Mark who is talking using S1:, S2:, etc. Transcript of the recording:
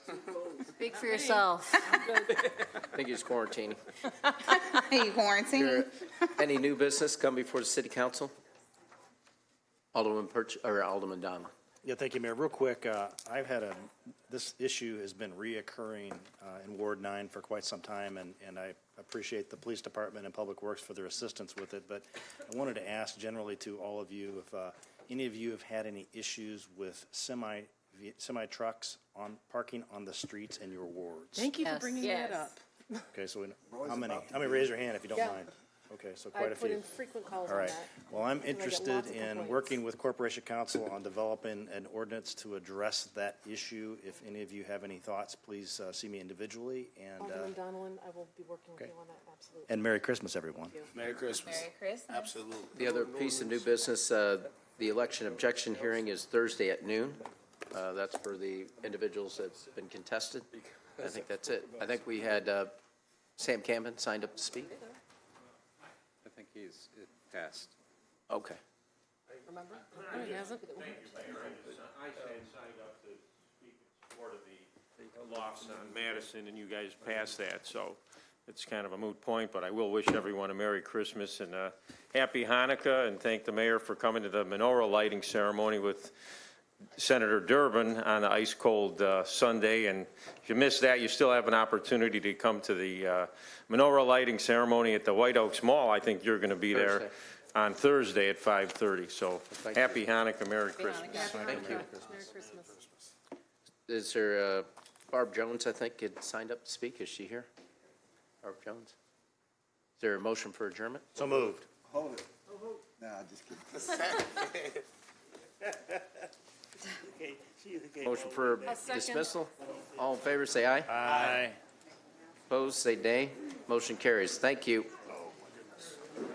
S1: Speak for yourself.
S2: I think he's quarantining.
S3: You quarantine?
S2: Any new business come before the city council? Alderman Perch, or Alderman Donlin?
S4: Yeah, thank you, Mayor. Real quick, uh, I've had a, this issue has been reoccurring uh, in Ward 9 for quite some time, and, and I appreciate the police department and Public Works for their assistance with it, but I wanted to ask generally to all of you if uh, any of you have had any issues with semi, semi trucks on, parking on the streets in your wards?
S5: Thank you for
S1: Yes.
S5: bringing that
S1: Yes.
S5: up.
S4: Okay, so we- how many? How many? Raise your hand if you don't
S5: Yeah.
S4: mind. Okay, so
S5: I
S4: quite a
S5: put in
S4: few.
S5: frequent calls
S4: All
S5: on
S4: right.
S5: that.
S4: Well, I'm
S5: get lots
S4: interested
S5: of
S4: in
S5: complaints.
S4: working with Corporation Council on developing an ordinance to address that issue. If any of you have any thoughts, please uh, see me individually, and,
S5: Alderman
S4: uh,
S5: Donlin, I will be working with
S4: okay.
S5: you on that, absolutely.
S4: and Merry Christmas, everyone.
S6: Merry Christmas.
S3: Merry Christmas.
S6: Absolutely.
S2: The other piece of new business, uh, the election objection hearing is Thursday at noon. Uh, That's for the individuals that's been contested. I think that's it. I think we had uh, Sam Campbell signed up to speak.
S7: I think he's it passed.
S2: Okay.
S1: No, he hasn't.
S8: I had signed up to speak in support of the lofts on Madison, and you guys passed that, so it's kind of a moot point, but I will wish everyone a Merry Christmas and a Happy Hanukkah, and thank the mayor for coming to the menorah lighting ceremony with Senator Durbin on the ice-cold uh, Sunday, and if you missed that, you still have an opportunity to come to the uh, menorah lighting ceremony at the White Oaks Mall. I think you're going to be there
S2: Thursday.
S8: on Thursday at 5:30, so
S2: you.
S8: happy Hanukkah, Merry Christmas.
S2: Thank you.
S5: Merry Christmas.
S2: Is there, uh, Barb Jones, I think, had signed up to speak. Is she here? Barb Jones? Is there a motion for adjournment?
S4: So moved.
S6: Hold it.
S9: Nah, just kidding.
S2: Motion for dismissal? All in favor, say aye.
S4: Aye.
S2: Opposed, say nay. Motion carries. Thank you.